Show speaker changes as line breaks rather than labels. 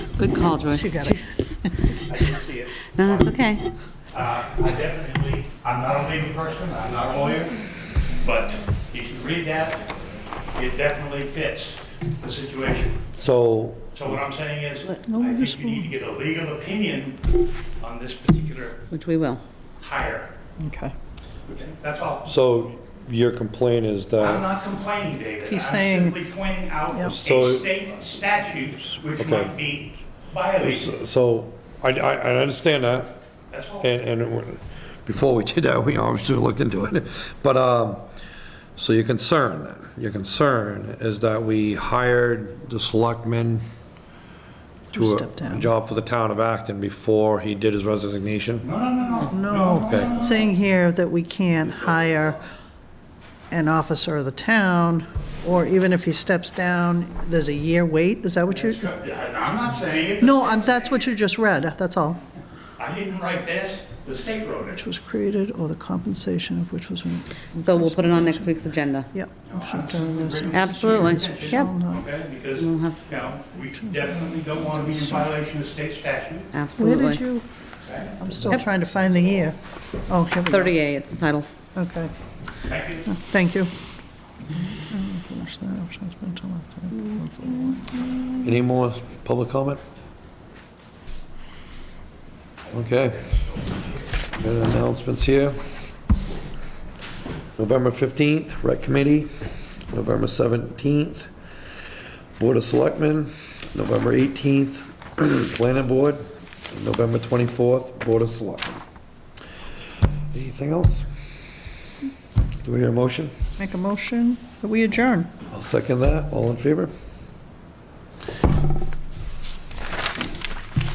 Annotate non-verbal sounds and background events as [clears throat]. Good call, Joyce.
She got
Jesus.
I didn't see it.
No, that's okay.
Uh, I definitely, I'm not a legal person, I'm not a lawyer, but if you read that, it definitely fits the situation.
So,
So what I'm saying is, I
no one
think you need to get a legal opinion on this particular
Which we will.
hire.
Okay.
That's all.
so your complaint is
I'm
that,
not complaining, David.
He's saying-
I'm simply pointing out
Yep.
a
So-
state statute which
Okay.
might be violated.
so, I, I, I understand that,
That's all.
and, and it wa- before we did that, we obviously looked into it, but, um, so your concern, then, your concern is that we hired the selectman
Who
to
stepped
a- a
down.
job for the town of Acton before he did his resignation?
No, no, no, no.
No,
Okay.
saying here that we can't hire an officer of the town, or even if he steps down, there's a year wait, is that what you?
I'm not saying it.
No, I'm, that's what you just read, that's all.
I didn't write this, the state wrote it.
Which was created, or the compensation of which was.
So we'll put it on next week's agenda.
Yep. should turn this in.
Absolutely. Yep.
Shall not-
Okay, because,
We'll
you
have-
know, we definitely don't want to be in violation of state statute.
Where did
Absolutely.
you, I'm still trying to find the year. Oh, here we go.
30A, it's the title.
Okay,
Thank you.
thank you.
Any more public comment? Okay. Any announcements here? November 15th, Rec Committee. November 17th, Board of Selectmen. November 18th, [clears throat] Planning Board. November 24th, Board of Selectmen. Anything else? Do we hear a motion?
Make a motion that we adjourn.
I'll second that. All in favor?